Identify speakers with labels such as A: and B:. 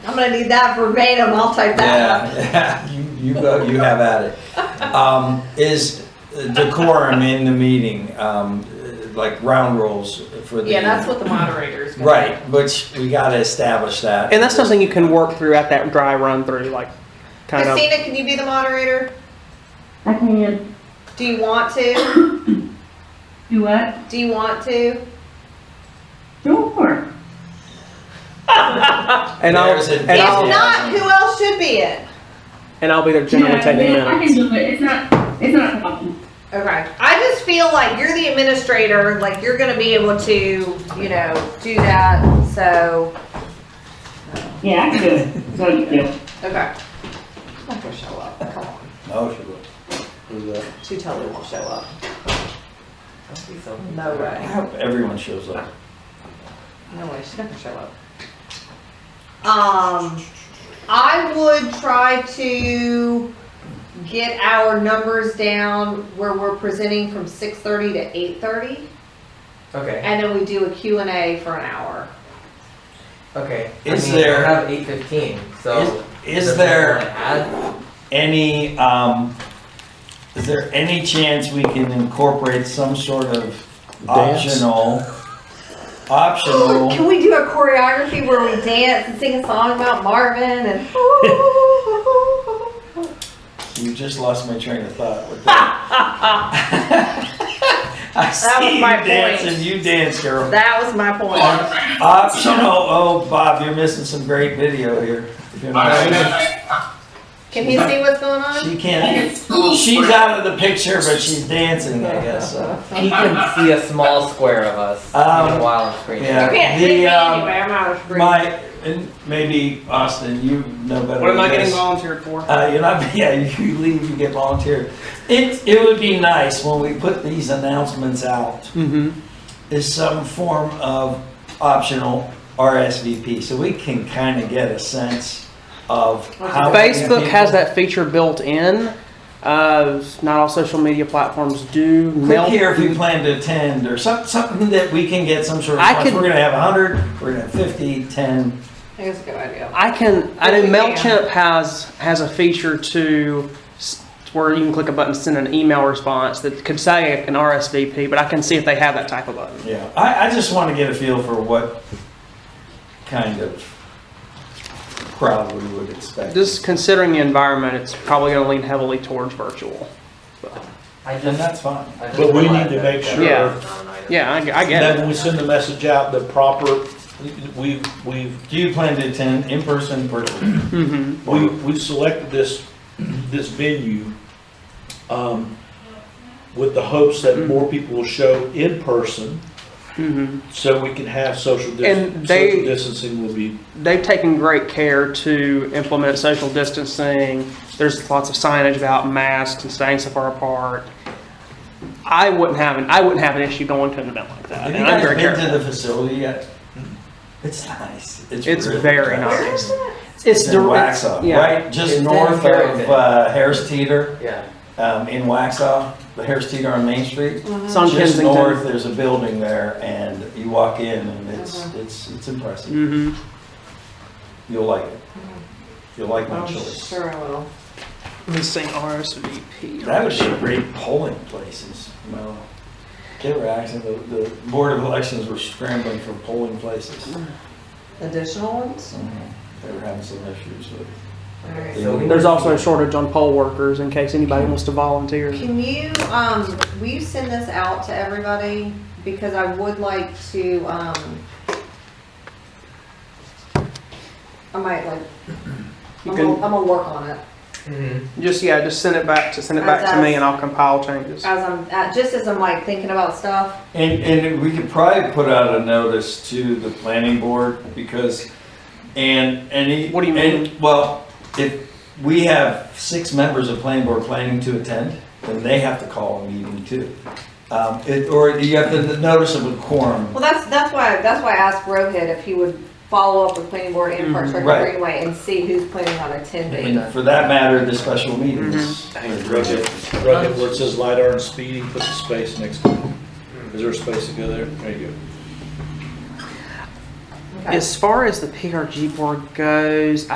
A: I'm gonna need that verbatim, I'll type that up.
B: Yeah, you, you go, you have at it. Um, is decorum in the meeting, um, like round rules for the.
C: Yeah, that's what the moderator is. gonna
B: Right, which we gotta establish that.
D: And that's something you can work through at that dry run through, like kind of.
A: Christina, can you be the moderator?
E: I can
A: Do you want to?
E: do what?
A: Do you want to?
E: Sure.
D: And I'll
B: There's a-
D: and
B: Yeah.
A: If
D: I'll
A: not, who else should be it?
D: and I'll be there generally
E: Yeah,
D: taking
E: yeah, I can
D: minutes.
E: do it. It's not, it's not a problem.
A: Okay, I just feel like you're the administrator, like you're gonna be able to, you know, do that, so,
E: Yeah, I can do it. So you do.
A: okay. I'm not gonna show up, come on,
B: Oh, she will. Who's that?
A: she totally won't show up. No
B: I
A: way,
B: hope everyone shows up.
A: no way, she's not gonna show up. Um, I would try to get our numbers down where we're presenting from six thirty to eight thirty,
F: Okay,
A: and then we do a Q and A for an hour.
F: okay.
B: Is
F: I mean,
B: there-
F: I have eight fifteen, so.
B: Is
F: does
B: there
F: anyone add?
B: any, um, is there any chance we can incorporate some sort of
G: Dance?
B: optional, optional?
A: Can we do a choreography where we dance and sing a song about Marvin and?
C: Oh,
B: You just lost my train of thought with that. I see
A: Ah! was
B: you
A: my point.
B: dancing, you dance, girl.
A: That was my point.
B: Optional, oh, Bob, you're missing some great video here. If you're not-
A: Can you see what's going on?
B: She can't, she's out of the picture, but she's dancing, I guess, so.
F: He can see a small square of us
B: Um,
F: in a while on screen.
B: yeah.
A: You can't
B: The,
A: see me
B: um,
A: anyway, I'm out of breath.
B: My, and maybe Austin, you know better.
D: What am I
B: than
D: getting
B: this.
D: volunteered for?
B: Uh, you're not, yeah, you leave, you get volunteered. It, it would be nice when we put these announcements out,
D: Mm-hmm.
B: is some form of optional RSVP, so we can kind of get a sense of how. many
D: Facebook has
B: people-
D: that feature built in. Uh, not all social media platforms do.
B: Click
D: Mail-
B: here if you plan to attend, or some, something that we can get some sort of,
D: I
B: response.
D: could-
B: we're gonna have hundred, we're gonna have fifty, ten.
A: I think it's a good idea.
D: I can. I know
A: Yes, we can.
D: Mailchimp has has a feature to s- where you can click a button, send an email response that could say an RSVP, but I can see if they have that type of button.
B: Yeah, I, I just want to get a feel for what kind of crowd we would expect.
D: Just considering the environment, it's probably going to lean heavily towards virtual.
F: I
B: And
F: just.
B: that's fine.
F: I just
G: But we
F: realized
G: need to
F: that
G: make
F: that's
G: sure-
D: Yeah.
F: not an item.
D: Yeah, I, I get
G: That
D: it.
G: when we send the message out, the proper, we've, we've,
B: Do you plan to attend in person, virtually?
D: hmm
G: we, we've selected this, this venue, um, with the hopes that more people will show in person,
D: hmm
G: so we can have social
D: And
G: dis-
D: they-
G: social distancing will be,
D: They've taken great care to implement social distancing. There's lots of signage about masks and staying so far apart. I wouldn't have an I wouldn't have an issue going to an event like that.
B: Have you
D: and I'm
B: guys
D: very careful.
B: been to the facility yet? It's nice.
D: It's
B: really
D: very nice. It's
B: It's in
D: direct.
B: Waxaw,
D: yeah.
B: right? Just
F: It's
B: north
F: in
B: of
F: Carrollton.
B: uh, Harris Teeter,
F: Yeah,
B: um, in Waxaw, the Harris Teeter on Main Street.
D: It's on
B: Just
D: Kensington.
B: north, there's a building there and you walk in and it's, it's, it's impressive.
D: hmm
B: You'll like it. You'll like my choice.
A: Oh, Sure I will.
D: Let me see RSVP.
B: That would be a great polling places. Well, get reaction, the, the Board of Elections were scrambling for polling places.
A: Additional ones?
B: They were having some issues with.
A: Alright.
F: so we.
D: There's
F: need-
D: also a shortage on poll workers in case anybody wants to volunteer.
A: Can you, um, will you send this out to everybody? Because I would like to, um, I might like,
D: You
A: I'm
D: can-
A: gonna, I'm gonna work on it.
F: Mhm.
D: Just yeah, just send it back to send it back to me, and I'll compile changes.
A: as I'm, uh, just as I'm like thinking about stuff.
B: And, and we could probably put out a notice to the planning board because, and any.
D: What do you
B: and-
D: mean?
B: Well, if we have six members of planning board planning to attend, then they have to call a meeting too. Um, it, or you have to notice of a quorum.
A: Well, that's, that's why, that's why I asked Rohit if he would follow up with planning board and
D: Mm-hmm.
A: Parks Rec
B: Right.
A: and Greenway and see who's planning on attending.
B: And for that matter, the special
F: Mm-hmm.
B: meetings.
G: rugged, rugged, where it says LiDAR and speeding, put the space next to it. Is there a space to go there? There you go.
A: Okay.
D: As far as the PRG board goes,